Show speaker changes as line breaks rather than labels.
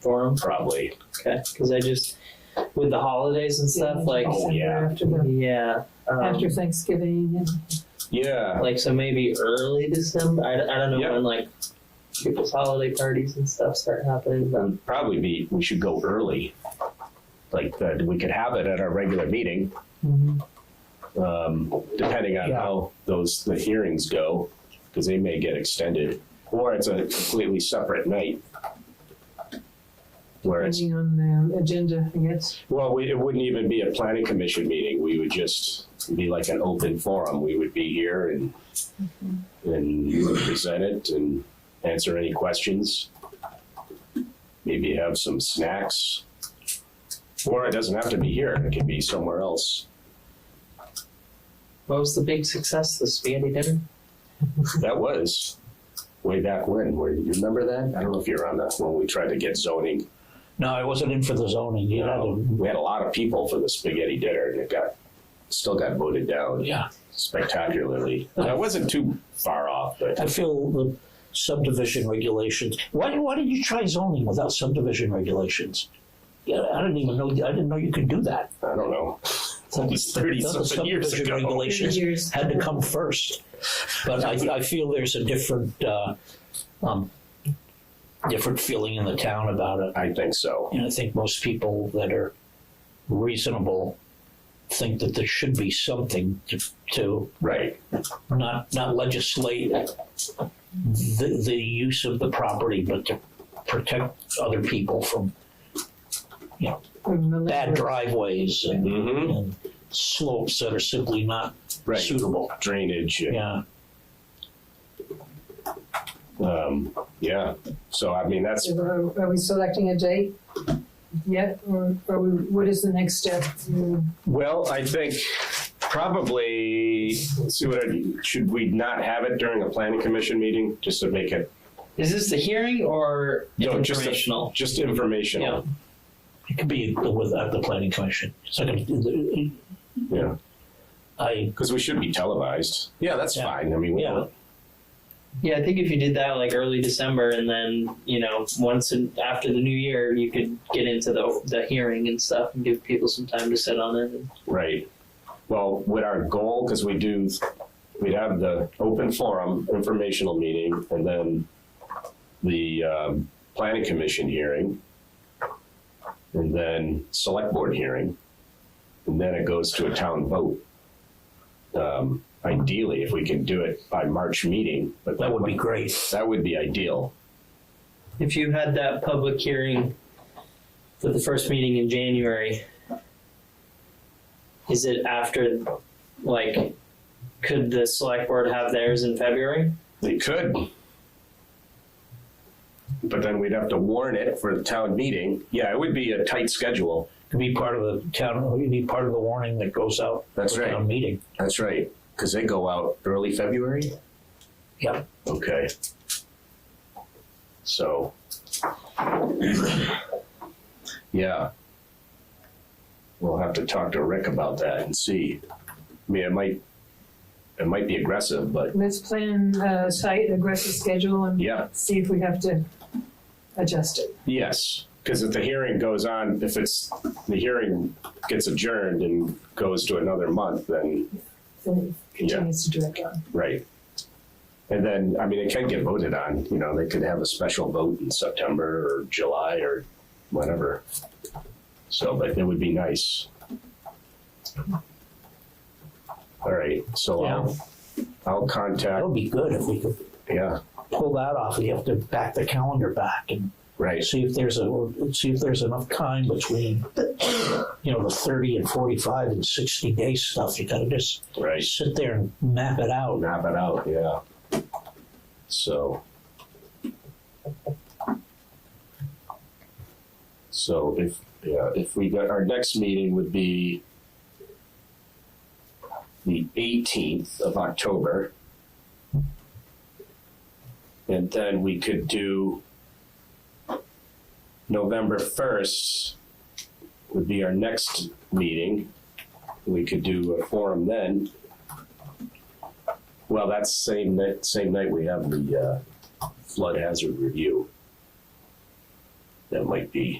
for them?
probably.
Okay, because I just with the holidays and stuff, like
Oh, yeah.
After the,
yeah, um,
after Thanksgiving and
Yeah.
like so maybe early December. I, I don't know
Yeah.
when like people's holiday parties and stuff start happening, but
would probably be we should go early. Like that, we could have it at our regular meeting, um, depending on
Yeah.
how those the hearings go, because they may get extended, or it's a completely separate night. Where it's
depending on the agenda, I guess.
well, we, it wouldn't even be a planning commission meeting. We would just be like an open forum. We would be here and and you would present it and answer any questions. Maybe have some snacks. Or it doesn't have to be here. It can be somewhere else.
what was the big success? The spaghetti dinner.
That was way back when. Where you remember that? I don't know if you're on that when we tried to get zoning. Um,
No, I wasn't in for the zoning. You had to,
We had a lot of people for the spaghetti dinner, and it got still got voted down.
yeah.
spectacularly. I wasn't too far off, but
I feel the subdivision regulations. Why, why did you try zoning without subdivision regulations? Yeah, I didn't even know, I didn't know you could do that.
I don't know. That was 30
Thought the
something years
subdivision
ago.
Regulations
Years.
had to come first. But I, I feel there's a different, uh, um, different feeling in the town about it.
I think so.
And I think most people that are reasonable think that there should be something to, to
Right.
not, not legislate the, the use of the property, but to protect other people from
From the
bad
liquor.
driveways and,
Mm-hmm.
and slopes that are simply not
Right.
suitable.
Drainage. and,
Yeah,
Um, yeah. So, I mean, that's,
So Are are we selecting a date yet, or or we- what is the next step? Mm,
well, I think probably, let's see what I, should we not have it during a planning commission meeting just to make it,
Is this the hearing or
No, just a-
informational?
just informational?
it could be with, at the planning commission. It's not gonna,
Yeah.
I,
Because we should be televised. Yeah, that's
Yeah.
fine. I mean, we
yeah,
Yeah, I think if you did that like early December, and then you know once in, after the new year, you could get into the the hearing and stuff, and give people some time to sit on it.
Right. Well, with our goal, because we do, we'd have the open forum informational meeting and then the um, planning commission hearing and then select board hearing. And then it goes to a town vote. Um, Ideally, if we can do it by March meeting, but
that would be great.
That would be ideal.
If you had that public hearing for the first meeting in January, is it after, like, could the select board have theirs in February?
They could. But then we'd have to warn it for the town meeting. Yeah, it would be a tight schedule.
Could be part of the town, it'd be part of the warning that goes out.
That's
for
right.
Town meeting.
That's right, because they go out early February.
Yeah.
Okay. So. Yeah. We'll have to talk to Rick about that and see. I mean, it might, it might be aggressive, but
Let's plan a site aggressive schedule and
yeah,
see if we have to adjust it.
yes. Because if the hearing goes on, if it's, the hearing gets adjourned and goes to another month, then,
Then it continues to direct on.
right. And then, I mean, it can get voted on, you know, they could have a special vote in September or July or whatever. So, but it would be nice. All right, so I'll, I'll
That
contact,
would be good if we could
yeah,
pull that off. You have to back the calendar back and
right,
see if there's a, see if there's enough time between, you know, the thirty and forty-five and sixty day stuff. You gotta just
right.
sit there and map it out.
Map it out, yeah. So. So if, yeah, if we got, our next meeting would be the eighteenth of October. And then we could do November first would be our next meeting. We could do a forum then. Well, that's same night, same night we have the uh, flood hazard review. that might be